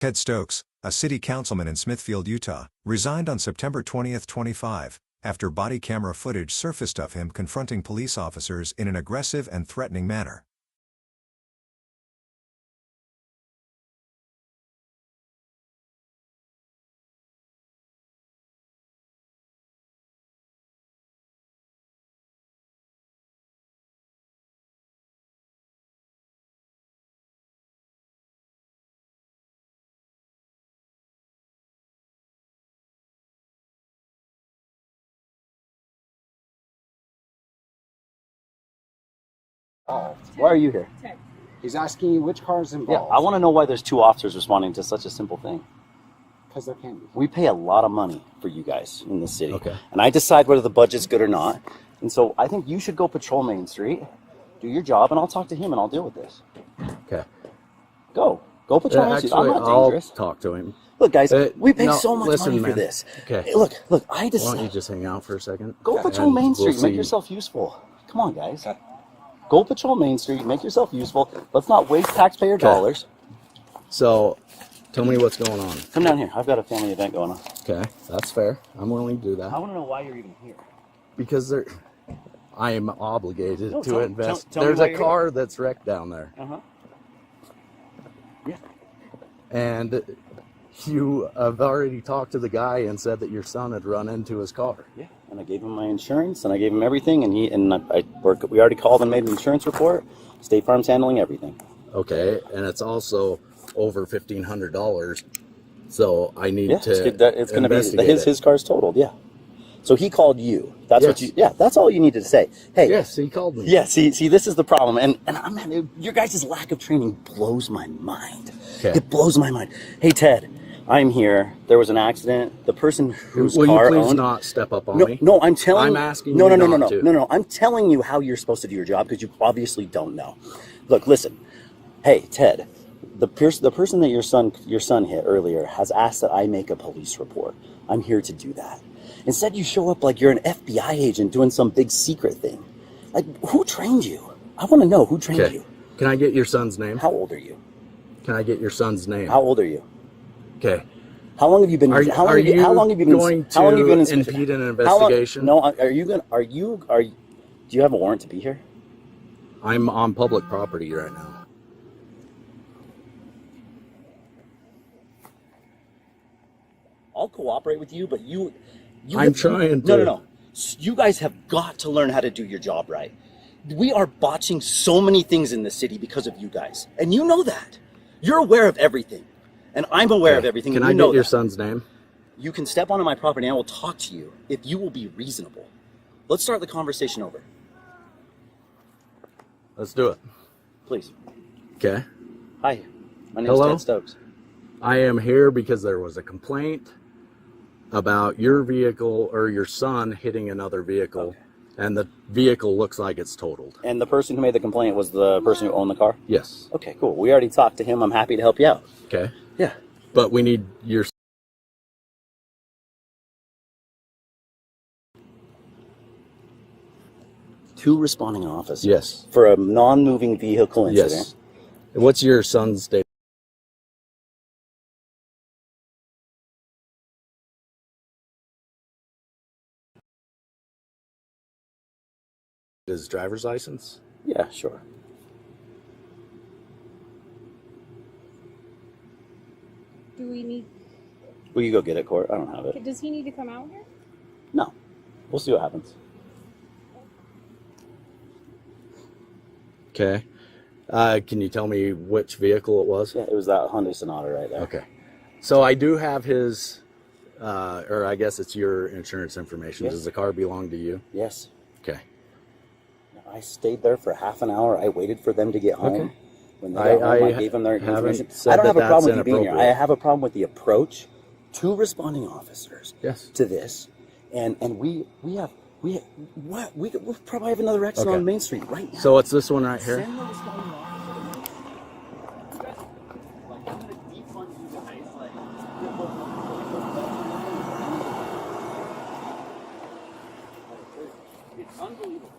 Ted Stokes, a city councilman in Smithfield, Utah, resigned on September 20, 25, after body camera footage surfaced of him confronting police officers in an aggressive and threatening manner. Oh, why are you here? He's asking you which car is Yeah, I involved want to know why there's two officers responding to such a simple thing. because there can't be. We pay a lot of money for you guys in this city. Okay. And I decide whether the budget's good or not. And so I think you should go patrol Main Street, do your job, and I'll talk to him and I'll deal with this. Okay. Go. Go patrol Uh, Main Street. I'm actually, not I'll dangerous. talk to him. Look, guys, Uh, we pay no, so much listen, money for man. this. Okay. Hey, Look, look, I Why don't you decide. just hang out for a second? Go patrol And Main we'll Street. make see. yourself useful. Come on, guys. Go patrol Main Street. Make yourself useful. Let's not waste taxpayer dollars. So, tell me what's going on. Come down here. I've got a family event going on. Okay, that's fair. I'm willing to do that I want to know why you're even here. because there, I am obligated No, to tell- tell- invest. tell me There's why a you're here. car that's wrecked down there, Uh huh. Yeah. and you have already talked to the guy and said that your son had run into his car. Yeah, and I gave him my insurance, and I gave him everything, and he and I, I work. We already called and made an insurance report. State Farm's handling everything. Okay, and it's also over fifteen hundred dollars. So I need Yeah, to it's, good- that- it's going to be investigate his it. his car's totaled. Yeah. So he called you. That's what Yes. you. Yeah, that's all you needed to say. Hey. Yes, he called me. Yeah. See, see, this is the problem, and and I'm not, your guys' lack of training blows my mind. Okay. It blows my mind. Hey, Ted, I'm here. There was an accident. The person whose Will car you please owned, not step up on No, me? no, I'm telling. I'm asking No, you no, no, not no, no, to. no, no. I'm telling you how you're supposed to do your job because you obviously don't know. Look, listen. Hey, Ted, the pers- the person that your son your son hit earlier has asked that I make a police report. I'm here to do that. Instead, you show up like you're an FBI agent doing some big secret thing. Like, who trained you? I want to know who trained Okay. you. Can I get your son's name? How old are you? Can I get your son's name? How old are you? Okay. How long have you been? Are- how, long are have you, how you long have you been? going how long have you been in to Smith- impede an how long- investigation? no, are are you going? to Are you? Are you, do you have a warrant to be here? I'm on public property right now. I'll cooperate with you, but you, you I'm have- trying No, no, to. no. S- You guys have got to learn how to do your job right. We are botching so many things in this city because of you guys, and you know that. You're aware of everything, and I'm aware of everything. Can and I you know get your that. son's name? You can step onto my property, and I will talk to you if you will be reasonable. Let's start the conversation over, Let's do it. please. Okay. Hi, my name's Hello? Ted Stokes. I am here because there was a complaint about your vehicle or your son hitting another vehicle, Okay. and the vehicle looks like it's totaled. And the person who made the complaint was the person who owned the car. Yes. Okay, cool. We already talked to him. I'm happy to help you out. Okay. Yeah. But we need your. Two responding officers. Yes. for a non-moving vehicle incident. Yes. What's your son's date? His driver's license? Yeah, sure. Do we need? Will you go get it, Court? I don't have it. Does he need to come out here? No. We'll see what happens. Okay. Uh, can you tell me which vehicle it was? Yeah, it was that Hyundai Sonata right there. Okay. So I do have his, uh, or I guess it's your insurance information. Yeah. Does the car belong to you? Yes. Okay. I stayed there for half an hour. I waited for them to get home. Okay. When they got I- home, I, I gave them their haven't information. said I don't that have a problem with that's you being here. I inappropriate. have a problem with the approach. Two responding officers Yes. to this, and and we we have we what we we probably have another accident Okay. on Main Street right now. So it's this one right here? Send the responding officer. Like, I'm gonna defund you guys, like, get what- It's unbelievable.